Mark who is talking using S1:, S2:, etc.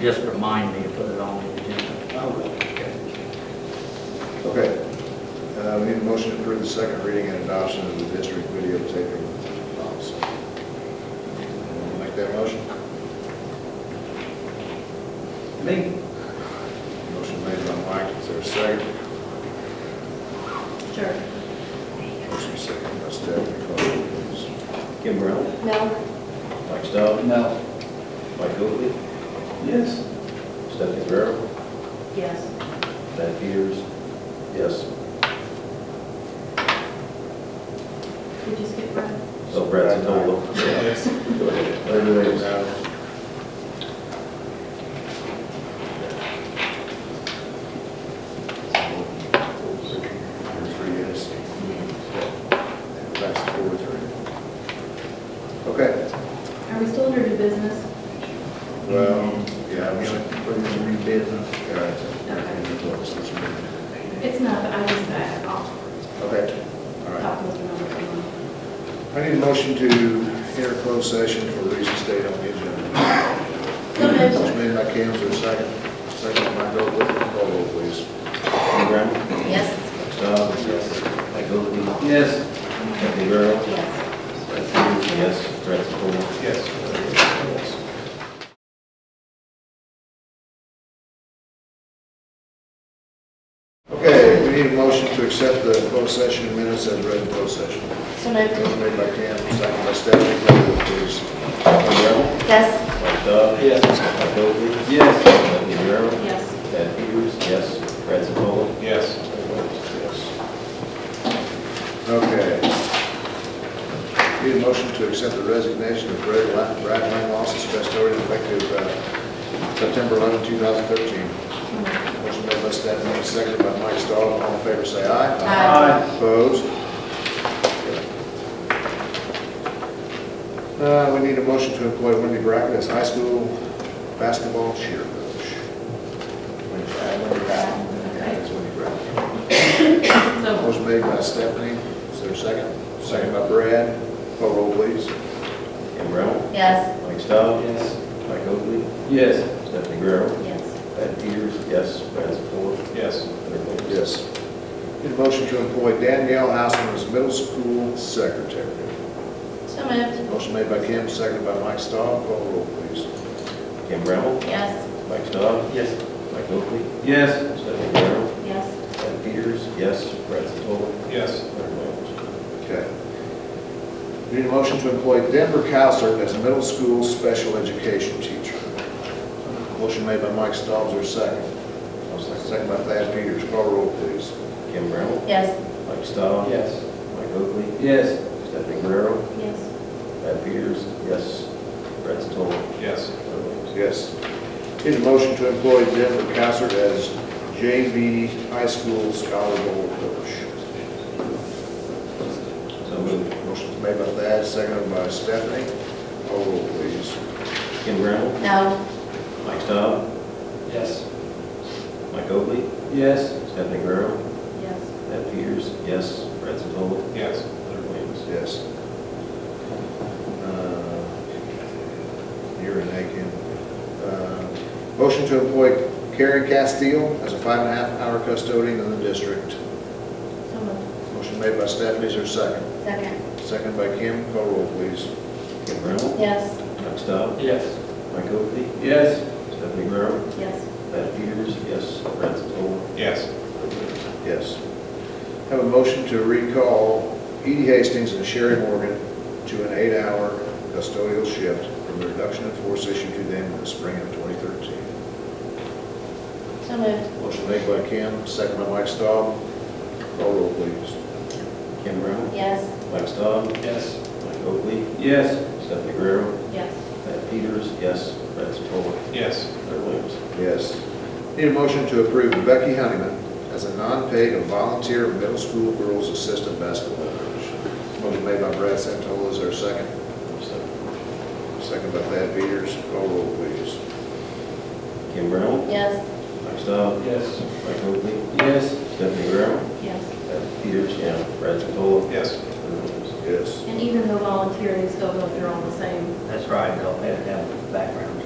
S1: Just remind me to put it on the agenda.
S2: I will.
S3: Okay. Uh, We need a motion to approve the second reading and adoption of the district videotaping policy. Anyone Make that motion?
S2: Me?
S3: Motion made by Mike, is there a second?
S4: Sure.
S3: Motion second by Stephanie, call the roll, please.
S5: Kim Brown,
S4: No.
S5: Mike Stowe,
S2: No.
S5: Mike Oakley,
S2: Yes.
S5: Stephanie Guerrero,
S4: Yes.
S5: Matt Peters, yes.
S4: Did you skip Brad?
S5: So Brett's a total.
S3: Yes.
S5: Go ahead. Larry Williams.
S3: Three yes. That's four, three. Okay,
S4: Are we still under new business?
S3: well, yeah, we should,
S1: Put it in new business.
S3: yeah.
S4: It's not, but I just, I- I'll
S3: Okay, all right.
S4: talk with you on it.
S3: I need a motion to enter closed session for reasons stated on the agenda.
S4: So moved.
S3: Motion made by Cam, is there a second? Second by Goble, call roll please.
S5: Kim Brown,
S4: Yes.
S5: Mike Stowe, yes. Mike Oakley,
S2: Yes.
S5: Stephanie Guerrero,
S4: Yes.
S5: Matt Peters, yes. Brett's a total. Yes.
S3: Okay, we need a motion to accept the closed session minutes as read in closed session.
S4: So moved.
S3: Motion made by Cam, second by Stephanie, call roll please.
S5: Kim Brown,
S4: Yes.
S5: Mike Stowe,
S2: Yes.
S5: Mike Oakley,
S2: Yes.
S5: Stephanie Guerrero,
S4: Yes.
S5: Matt Peters, yes. Brett's a total.
S2: Yes.
S3: Yes. Okay. Need a motion to accept the resignation of Brad Lang- Brad Langloss as custodian effective uh, September 11, 2013. Motion made by Stephanie, seconded by Mike Stahl. All in favor, say aye.
S4: Aye.
S3: Opposed? Uh, We need a motion to employ Wendy Brackett as high school basketball cheer coach. Wendy Brackett, Wendy Brackett. Yeah, it's Wendy Brackett.
S4: So,
S3: Motion made by Stephanie, is there a second? Second by Brad, call roll please.
S5: Kim Brown,
S4: yes.
S5: Mike Stowe,
S2: Yes.
S5: Mike Oakley,
S2: Yes.
S5: Stephanie Guerrero,
S4: Yes.
S5: Matt Peters, yes. Brett's a total.
S2: Yes.
S5: Larry Williams.
S3: Yes. Need a motion to employ Danielle Houseman as middle school secretary.
S4: So moved.
S3: Motion made by Kim, seconded by Mike Stahl, call roll please.
S5: Kim Brown,
S4: Yes.
S5: Mike Stowe,
S2: Yes.
S5: Mike Oakley,
S2: Yes.
S5: Stephanie Guerrero,
S4: Yes.
S5: Ed Peters, yes. Brad Stolow,
S2: Yes.
S5: Larry Williams.
S3: Okay. Need a motion to employ Denver Cowser as middle school special education teacher. Motion made by Mike Stahl, is there a second? Second by Thad Peters, call roll please.
S5: Kim Brown,
S4: Yes.
S5: Mike Stowe,
S2: Yes.
S5: Mike Oakley,
S2: Yes.
S5: Stephanie Guerrero,
S4: Yes.
S5: Ed Peters, yes. Brad Stolow,
S2: Yes.
S5: Larry Williams.
S3: Yes. Need a motion to employ Denver Cassard as JV high school scholar bowl coach.
S5: So moved.
S3: Motion's made by Thad, seconded by Stephanie. Call roll, please.
S5: Kim Brown,
S4: No.
S5: Mike Stowe,
S2: Yes.
S5: Mike Oakley,
S2: Yes.
S5: Stephanie Guerrero,
S4: Yes.
S5: Ed Peters, yes. Brad Stolow,
S2: Yes.
S5: Larry Williams.
S3: Yes. Uh, You're an A, Kim. Uh, Motion to employ Karen Castile as a five and a half hour custodian in the district.
S4: So moved.
S3: Motion made by Stephanie, is there a second?
S4: Second.
S3: Second by Kim. Call roll, please.
S5: Kim Brown,
S4: Yes.
S5: Mike Stowe,
S2: Yes.
S5: Mike Oakley,
S2: Yes.
S5: Stephanie Guerrero,
S4: Yes.
S5: Ed Peters, yes. Brad Stolow,
S2: Yes.
S5: Larry Williams.
S3: Yes. Have a motion to recall Edie Hastings and Sherry Morgan to an eight-hour custodial shift from the reduction in force issued to them in the spring of 2013.
S4: So moved.
S3: Motion made by Kim, second by Mike Staub. Call roll, please.
S5: Kim Brown,
S4: Yes.
S5: Mike Stowe,
S2: Yes.
S5: Mike Oakley,
S2: Yes.
S5: Stephanie Guerrero,
S4: Yes.
S5: Matt Peters, yes. Brad Stolow,
S2: Yes.
S5: Larry Williams.
S3: Yes. Need a motion to approve Becky Honeyman as a non-paid and volunteer middle school girls assistant basketball coach. Motion made by Brad Santola, is there a second? Second by Thad Peters. Call roll, please.
S5: Kim Brown,
S4: Yes.
S5: Mike Stowe,
S2: Yes.
S5: Mike Oakley,
S2: Yes.
S5: Stephanie Guerrero,
S4: Yes.
S5: Matt Peters, yeah, Brad Stolow,
S2: Yes.
S5: Larry Williams.
S3: Yes.
S4: And even the volunteering still go through all the same
S1: That's right, they'll have to have background